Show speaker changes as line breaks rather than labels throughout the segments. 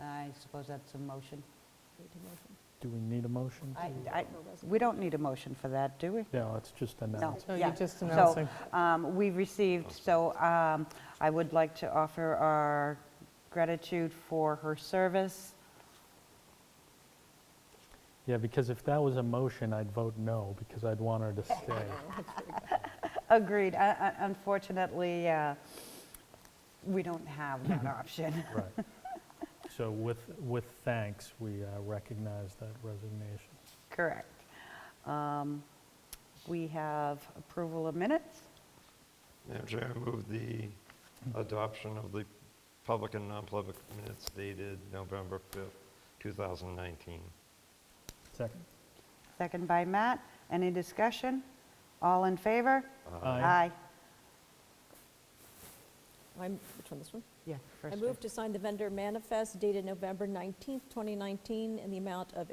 I suppose that's a motion.
Do we need a motion?
I- I- We don't need a motion for that, do we?
Yeah, it's just announced.
So
yeah.
you're just
So,
announcing.
um, We received, so um, I would like to offer our gratitude for her service.
Yeah, because if that was a motion, I'd vote no, because I'd want her to stay.
Agreed. Uh, uh, Unfortunately, uh, we don't have that option.
Right. So with, with thanks, we uh, recognize that resignation.
Correct. Um, We have approval of minutes.
Madam Chair, I move the adoption of the public and non-public minutes dated November 5th, 2019.
Second?
Second by Matt. Any discussion? All in favor?
Aye.
I'm- Which one, this one?
Yeah.
I move to sign the vendor manifest dated November 19th, 2019, in the amount of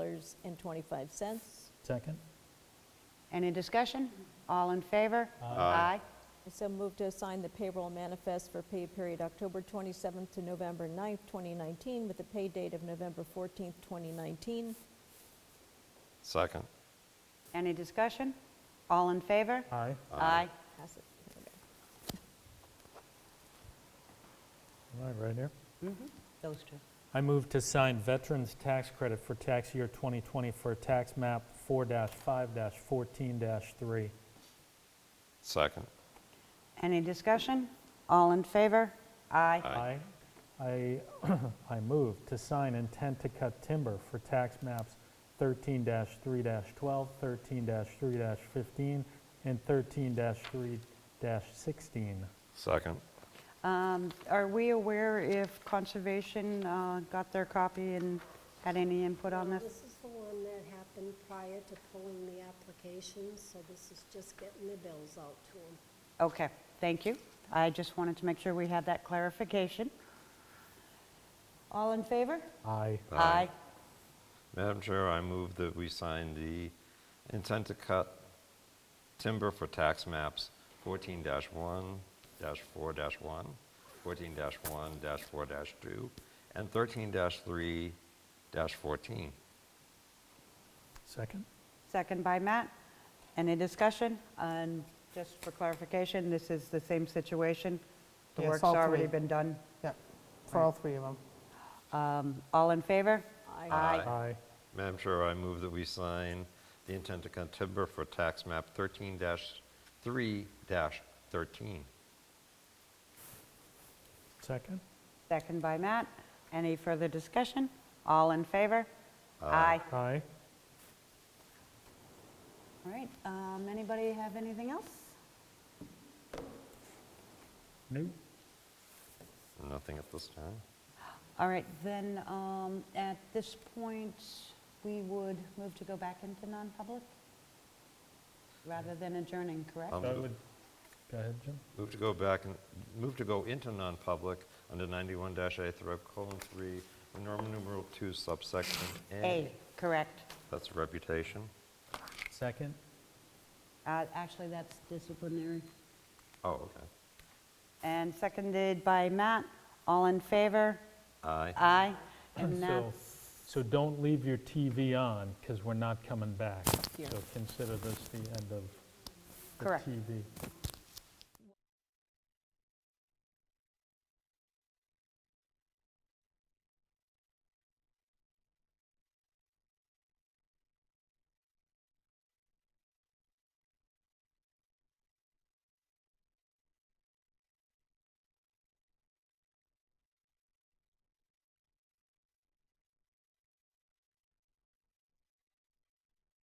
$84,762.25.
Second?
Any discussion? All in favor?
I
Aye.
so move to sign the payroll manifest for pay period October 27th to November 9th, 2019, with the pay date of November 14th, 2019.
Second.
Any discussion? All in favor?
Aye.
Aye.
Pass it. There we go.
All right, right here.
Mm-hmm. Those two.
I move to sign Veterans Tax Credit for tax year 2020 for tax map 4-5-14-3.
Second.
Any discussion? All in favor? Aye.
Aye. I, I move to sign intent to cut timber for tax maps 13-3-12, 13-3-15, and 13-3-16.
Second.
Um, Are we aware if Conservation uh, got their copy and had any input on
Well,
this?
This is the one that happened prior to pulling the applications, so this is just getting the bills out to them.
Okay, thank you. I just wanted to make sure we had that clarification. All in favor?
Aye.
Aye. Madam Chair, I move that we sign the intent to cut timber for tax maps 14-1-4-1, 14-1-4-2, and 13-3-14.
Second?
Second by Matt. Any discussion? And just for clarification, this is the same situation? The
Yes,
work's
all
already
three.
been done?
Yeah, for all three of them.
Um, All in favor?
Aye.
Aye.
Madam Chair, I move that we sign the intent to cut timber for tax map 13-3-13.
Second?
Second by Matt. Any further discussion? All in favor? Aye.
Aye.
All right, um, anybody have anything else?
No.
Nothing at this time.
All right, then, um, at this point, we would move to go back into non-public? Rather than adjourning, correct?
Um,
I would- Go ahead, Jim.
Move to go back and, move to go into non-public under 91-A through colon 3, Roman numeral 2 subsection
A,
A.
correct.
That's reputation.
Second?
Uh, Actually, that's disciplinary.
Oh, okay.
And seconded by Matt. All in favor?
Aye.
Aye. And
So-
that's,
So don't leave your TV on, because we're not coming back.
Yeah.
So consider this the end of the
Correct.
TV.